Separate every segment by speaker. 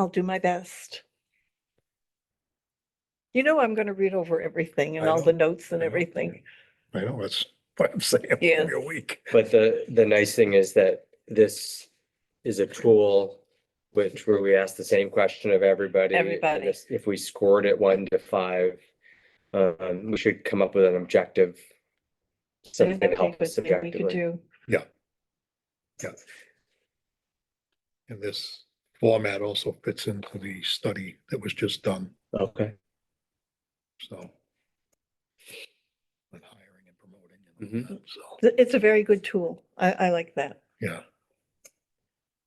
Speaker 1: I'll do my best. You know, I'm going to read over everything and
Speaker 2: I
Speaker 1: all the
Speaker 2: know,
Speaker 1: notes and
Speaker 2: I know.
Speaker 1: everything.
Speaker 2: I know, that's what I'm saying,
Speaker 1: Yeah.
Speaker 2: every week.
Speaker 3: But the, the nice thing is that this is a tool which where we ask the same question of everybody. and
Speaker 1: Everybody.
Speaker 3: this- If we scored it one to five, um, we should come up with an objective.
Speaker 1: There's
Speaker 3: Something to
Speaker 1: nothing
Speaker 3: help us
Speaker 1: good thing we could
Speaker 3: objectively.
Speaker 1: do.
Speaker 2: And this format also fits into the study that was just done,
Speaker 3: Okay.
Speaker 2: so. on hiring and promoting and
Speaker 3: Mm-hmm.
Speaker 2: all that, so,
Speaker 1: Th- It's a very good tool. I, I like that.
Speaker 2: yeah,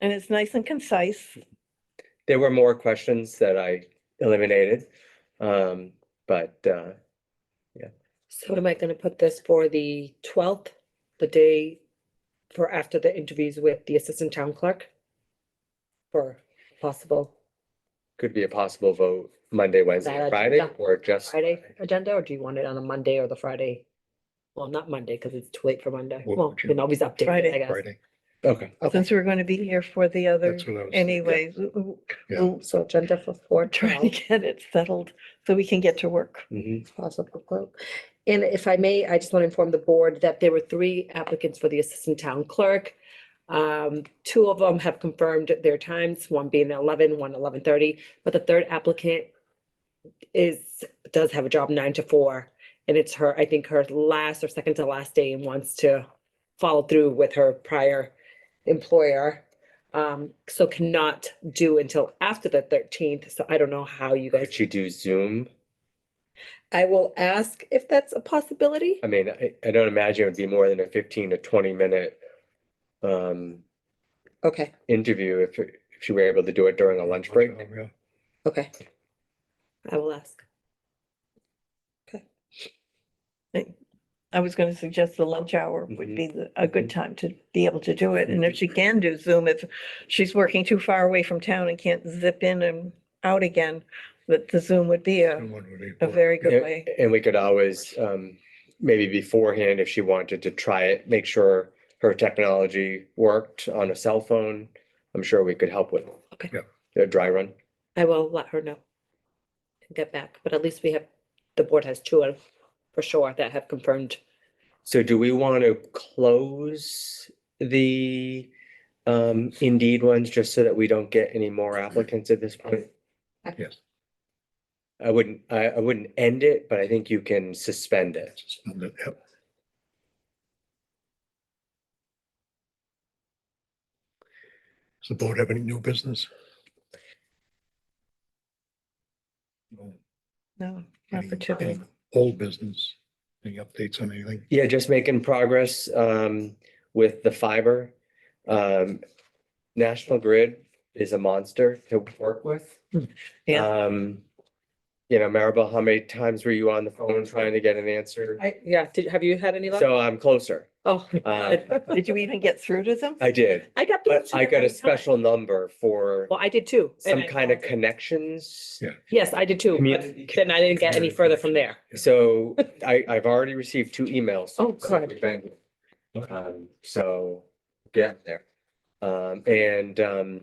Speaker 1: And it's nice and concise.
Speaker 3: There were more questions that I eliminated, um, but, uh,
Speaker 4: So am I gonna put this for the twelfth, the day for after the interviews with the assistant town clerk? For possible
Speaker 3: could be a possible vote Monday, Wednesday,
Speaker 4: That
Speaker 3: or
Speaker 4: I-
Speaker 3: Friday,
Speaker 4: that-
Speaker 3: or just.
Speaker 4: Friday agenda, or do you want it on a Monday or the Friday? Well, not Monday, because it's too late for Monday.
Speaker 2: What
Speaker 4: Well,
Speaker 2: would
Speaker 4: we
Speaker 2: you-
Speaker 4: can always update it,
Speaker 1: Friday.
Speaker 4: I guess.
Speaker 2: Friday,
Speaker 3: Okay,
Speaker 4: Okay,
Speaker 1: Since we're going to be here for the other
Speaker 2: that's what I was.
Speaker 1: anyways, w- w-
Speaker 2: Yeah. Uh-huh.
Speaker 1: we'll
Speaker 4: so agenda for four
Speaker 1: try to
Speaker 4: twelve,
Speaker 1: get it settled so we can get to work.
Speaker 3: mhm,
Speaker 4: possible vote. And if I may, I just want to inform the board that there were three applicants for the assistant town clerk. Um, two of them have confirmed their times, one being eleven, one eleven thirty, but the third applicant is, does have a job nine to four. And it's her, I think her last or second to last day and wants to follow through with her prior employer. Um, so cannot do until after the thirteenth, so I don't know how you guys.
Speaker 3: could you do Zoom?
Speaker 4: I will ask if that's a possibility.
Speaker 3: I mean, I, I don't imagine it would be more than a fifteen to twenty minute um,
Speaker 4: Okay,
Speaker 3: interview if, if she were able to do it during a lunch break.
Speaker 2: Yeah.
Speaker 4: okay. I will ask.
Speaker 1: I was going to suggest the lunch hour would
Speaker 3: Mhm.
Speaker 1: be the- a good time to be able to do it. And if she
Speaker 3: Mm-hmm.
Speaker 1: can do Zoom, if she's working too far away from town and can't zip in and out again, that the Zoom would be a,
Speaker 2: Someone would be
Speaker 1: a
Speaker 2: important.
Speaker 1: very good
Speaker 3: And-
Speaker 1: way.
Speaker 3: And we could always, um, maybe beforehand, if she wanted to try it, make sure her technology worked on a cell phone. I'm sure we could help with.
Speaker 4: Okay.
Speaker 3: A dry run.
Speaker 4: I will let her know. and Get back, but at least we have, the board has two of, for sure, that have confirmed.
Speaker 3: So do we want to close the um, Indeed ones just so that we don't get any more applicants at this point?
Speaker 2: Yes,
Speaker 3: I wouldn't, I, I wouldn't end it, but I think you can suspend it.
Speaker 2: and that- yep. Does the board have any new business? No.
Speaker 1: No,
Speaker 2: Any-
Speaker 1: opportunity.
Speaker 2: any Old business, any updates on anything?
Speaker 3: Yeah, just making progress um with the fiber. Um, National Grid is a monster to work with.
Speaker 1: Yeah.
Speaker 3: Um, you know, Maribel, how many times were you on the phone trying to get an answer?
Speaker 4: I, yeah, did, have you had any luck?
Speaker 3: So I'm closer.
Speaker 4: Oh.
Speaker 3: Uh,
Speaker 1: Did you even get through to them?
Speaker 3: I did,
Speaker 4: I got.
Speaker 3: but
Speaker 4: those
Speaker 3: I got
Speaker 4: every
Speaker 3: a
Speaker 4: time.
Speaker 3: special number for
Speaker 4: Well, I did too.
Speaker 3: some
Speaker 4: and I
Speaker 3: kind of
Speaker 4: called-
Speaker 3: connections.
Speaker 2: Yeah.
Speaker 4: Yes, I did too,
Speaker 3: Community-
Speaker 4: but then I didn't get any further from there.
Speaker 3: So I, I've already received two emails.
Speaker 4: Oh,
Speaker 3: since
Speaker 4: good.
Speaker 3: we've been here.
Speaker 2: Okay.
Speaker 3: Um, so, yeah, there. Um, and, um,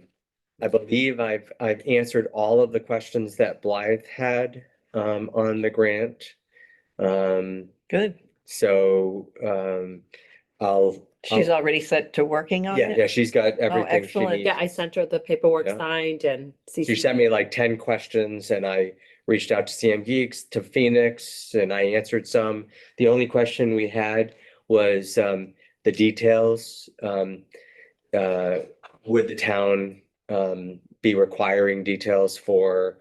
Speaker 3: I believe I've, I've answered all of the questions that Blythe had, um, on the grant. Um,
Speaker 1: Good.
Speaker 3: so, um, I'll,
Speaker 1: She's
Speaker 3: Oh.
Speaker 1: already set to working on
Speaker 3: yeah, yeah,
Speaker 1: it?
Speaker 3: she's got everything she
Speaker 1: excellent.
Speaker 3: needs.
Speaker 4: Oh, Yeah, I sent her the paperwork
Speaker 3: Yeah.
Speaker 4: signed and.
Speaker 3: She sent me like ten questions and I reached out to CM Geeks, to Phoenix, and I answered some. The only question we had was um the details. Um uh would the town um be requiring details for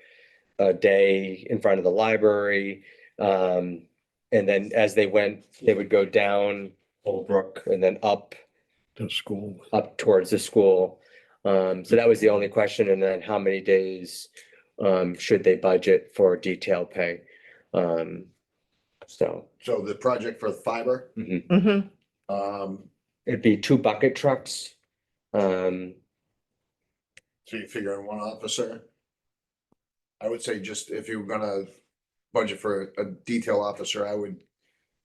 Speaker 3: a day in front of the library? Um and then as they went, they would go down Old Brook and then up
Speaker 2: To school,
Speaker 3: up towards the school. Um, so that was the only question. And then how many days um, should they budget for detail pay? Um, so
Speaker 5: So the project for fiber,
Speaker 1: Mm-hmm.
Speaker 5: um,
Speaker 3: it'd be two bucket trucks. Um,
Speaker 5: so you figure in one officer. I would say just if you're gonna budget for a detail officer, I would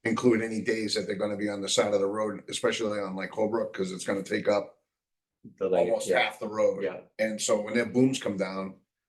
Speaker 5: include any days that they're gonna be on the side of the road, especially on like Holbrook, because it's gonna take up
Speaker 3: the lady-
Speaker 5: almost
Speaker 3: yeah,
Speaker 5: half the road.
Speaker 3: Yeah,
Speaker 5: And so when their booms come down,